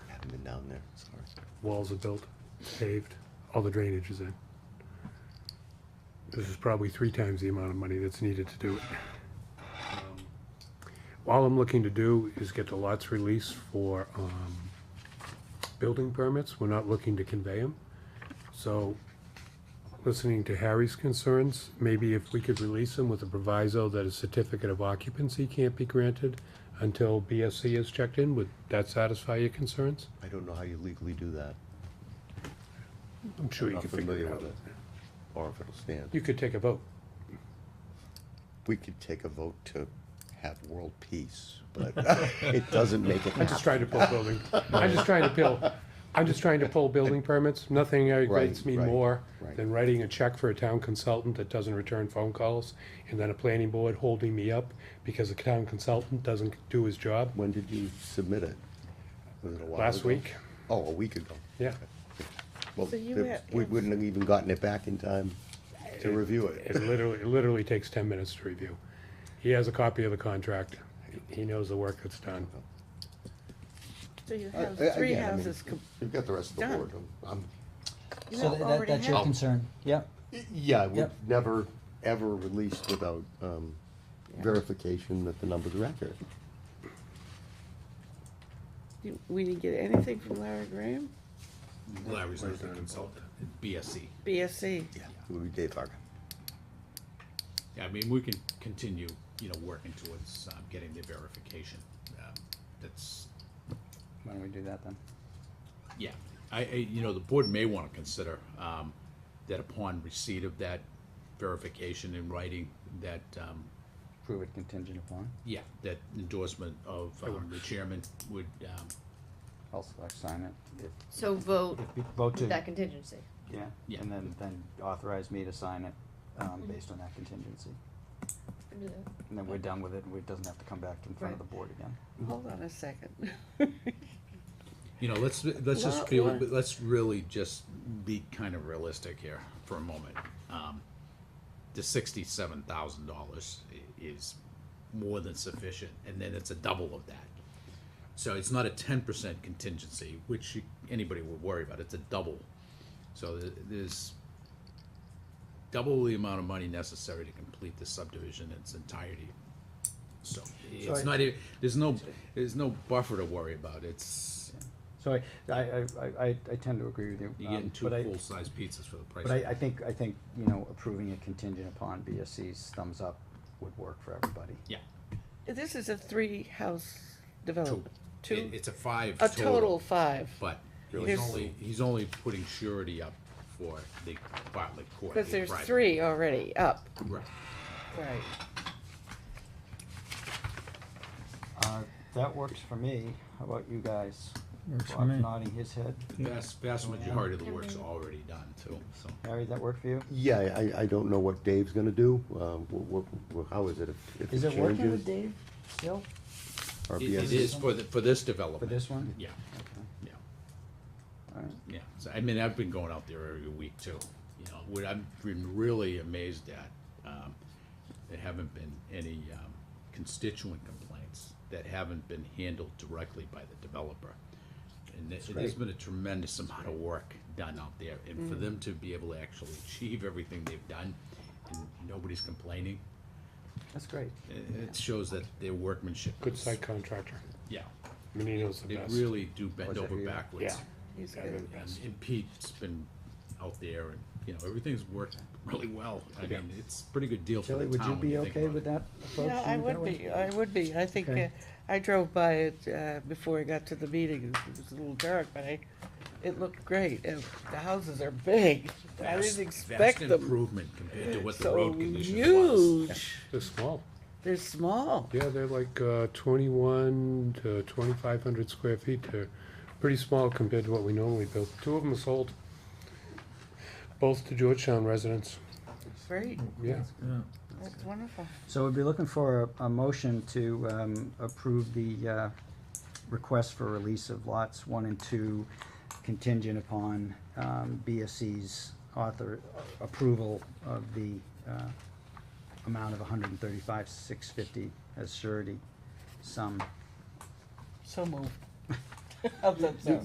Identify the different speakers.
Speaker 1: been down there, sorry.
Speaker 2: walls are built, paved, all the drainage is in. This is probably three times the amount of money that's needed to do it. Um, All I'm looking to do is get the lots released for, um, building permits, we're not looking to convey them. So, listening to Harry's concerns, maybe if we could release them with a proviso that a certificate of occupancy can't be granted until BSC is checked in, would that satisfy your concerns?
Speaker 1: I don't know how you legally do that,
Speaker 2: I'm sure you
Speaker 1: Not
Speaker 2: can figure
Speaker 1: familiar
Speaker 2: it out.
Speaker 1: with it. or if it'll stand.
Speaker 2: You could take a vote.
Speaker 1: We could take a vote to have world peace, but it doesn't make it
Speaker 2: I'm
Speaker 1: happen.
Speaker 2: just trying to pull building, I'm just trying to pull, I'm just trying to pull building permits. Nothing aggravates me
Speaker 1: right,
Speaker 2: more
Speaker 1: right.
Speaker 2: than writing a check for a town consultant that doesn't return phone calls, and then a planning board holding me up because the town consultant doesn't do his job.
Speaker 1: When did you submit it? Was it a while
Speaker 2: Last
Speaker 1: ago?
Speaker 2: week,
Speaker 1: Oh, a week ago.
Speaker 2: yeah.
Speaker 1: Well,
Speaker 3: So you
Speaker 1: there-
Speaker 3: ha-
Speaker 1: we
Speaker 3: have-
Speaker 1: wouldn't have even gotten it back in time to review it.
Speaker 2: It literally, it literally takes ten minutes to review. He has a copy of the contract. He knows the work that's done.
Speaker 3: So you
Speaker 1: Uh,
Speaker 3: have
Speaker 1: uh,
Speaker 3: three
Speaker 1: again, I mean,
Speaker 3: houses, com-
Speaker 1: You've got the rest of the
Speaker 3: done.
Speaker 1: board. I'm- I'm,
Speaker 3: you
Speaker 4: So
Speaker 3: have
Speaker 4: tha- that,
Speaker 3: already
Speaker 4: that's your
Speaker 3: had,
Speaker 4: concern, yep.
Speaker 1: yeah, we've
Speaker 4: Yep.
Speaker 1: never, ever released without, um, verification that the numbers are accurate.
Speaker 3: You- we didn't get anything from Larry Graham,
Speaker 5: Larry's not the consultant, BSC.
Speaker 3: BSC.
Speaker 1: Yeah. It would be Dave Hargan.
Speaker 5: Yeah, I mean, we can continue, you know, working towards um, getting the verification. Um, That's,
Speaker 4: Why don't we do that then?
Speaker 5: yeah, I, I, you know, the board may want to consider um, that upon receipt of that verification in writing, that, um,
Speaker 4: Prove it contingent upon,
Speaker 5: yeah, that endorsement of um, the chairman would, um,
Speaker 4: I'll select sign it. if-
Speaker 6: So vote
Speaker 4: Vote
Speaker 6: that contingency.
Speaker 4: Yeah,
Speaker 5: Yeah.
Speaker 4: and then, then authorize me to sign it, um,
Speaker 3: Mm-hmm.
Speaker 4: based on that contingency. And then we're done with it, and it doesn't have to come back in front of the
Speaker 6: Right.
Speaker 4: board again.
Speaker 3: Hold on a second.
Speaker 5: you know, let's, let's just
Speaker 3: Well,
Speaker 5: be,
Speaker 3: well-
Speaker 5: let's really just be kind of realistic here for a moment. Um, The sixty-seven thousand dollars is more than sufficient, and then it's a double of that. So it's not a ten percent contingency, which you- anybody would worry about, it's a double. So th- there's double the amount of money necessary to complete the subdivision in its entirety. So it's
Speaker 4: I-
Speaker 5: not, e- there's no, there's no buffer to worry about, it's,
Speaker 4: So I, I, I, I, I tend to agree with you.
Speaker 5: you're
Speaker 4: um,
Speaker 5: getting two
Speaker 4: but I-
Speaker 5: full-size pizzas for the price.
Speaker 4: But
Speaker 5: of
Speaker 4: I, I
Speaker 5: one.
Speaker 4: think, I think, you know, approving it contingent upon BSC's thumbs up would work for everybody.
Speaker 5: Yeah.
Speaker 3: This is a three-house development,
Speaker 5: It-
Speaker 3: two,
Speaker 5: It's a five
Speaker 3: a
Speaker 5: total.
Speaker 3: total of five.
Speaker 5: But
Speaker 3: There's-
Speaker 5: he's only, he's only putting surety up for the Bartlett Court.
Speaker 3: Cause
Speaker 5: the
Speaker 3: there's
Speaker 5: private-
Speaker 3: three already up.
Speaker 5: Right.
Speaker 3: Right.
Speaker 4: Uh, that works for me, how about you guys?
Speaker 7: Works for
Speaker 4: Bob's
Speaker 7: me.
Speaker 4: nodding his head,
Speaker 5: Vast, vast majority of the work's already done too, so.
Speaker 4: Harry, that work for you?
Speaker 1: Yeah, I, I don't know what Dave's gonna do, um, wh- wh- wh- how is it if, if it
Speaker 4: Is it working
Speaker 1: changes?
Speaker 4: with Dave still
Speaker 1: or
Speaker 5: It
Speaker 1: BSC?
Speaker 5: it is for the, for this
Speaker 4: for
Speaker 5: development.
Speaker 4: this one?
Speaker 5: Yeah, yeah,
Speaker 4: Alright,
Speaker 5: yeah. So, I mean, I've been going out there every week too, you know, what I've been really amazed at, um, there haven't been any, um, constituent complaints that haven't been handled directly by the developer. And there- there's been a tremendous amount of work done out there, and
Speaker 2: Mm.
Speaker 5: for them to be able to actually achieve everything they've done, and nobody's complaining,
Speaker 4: that's great.
Speaker 5: i- it shows that their workmanship.
Speaker 2: Good
Speaker 5: is-
Speaker 2: site contractor.
Speaker 5: Yeah,
Speaker 2: I mean, he knows the
Speaker 5: they
Speaker 2: best.
Speaker 5: really do bend
Speaker 4: Was it
Speaker 5: over
Speaker 4: here?
Speaker 5: backwards.
Speaker 2: Yeah.
Speaker 3: He's
Speaker 2: Yeah, they're the
Speaker 3: good.
Speaker 2: best.
Speaker 5: And and Pete's been out there and, you know, everything's worked really well. I mean, it's a pretty good deal for
Speaker 4: Tilly,
Speaker 5: the
Speaker 4: would you
Speaker 5: town when
Speaker 4: be
Speaker 5: you think
Speaker 4: okay
Speaker 5: about
Speaker 4: with
Speaker 5: it.
Speaker 4: that approach?
Speaker 3: Yeah, I would be, I would be, I think, uh,
Speaker 4: Okay.
Speaker 3: I drove by it, uh, before I got to the meeting, it was a little dark, but I, it looked great, and the houses are big, I
Speaker 5: Vast-
Speaker 3: didn't expect
Speaker 5: Vast
Speaker 3: them.
Speaker 5: improvement compared to what the
Speaker 3: So
Speaker 5: road condition was.
Speaker 3: huge.
Speaker 2: They're small.
Speaker 3: They're small.
Speaker 2: Yeah, they're like uh, 21 to 2,500 square feet. They're pretty small compared to what we normally build. Two of them are sold, both to Georgetown residents.
Speaker 3: Great.
Speaker 2: Yeah,
Speaker 3: That's wonderful.
Speaker 4: So we'd be looking for a, a motion to, um, approve the, uh, request for release of lots one and two contingent upon, um, BSC's author, approval of the, uh, amount of hundred and thirty-five, six fifty as surety sum.
Speaker 3: So moved. Of the-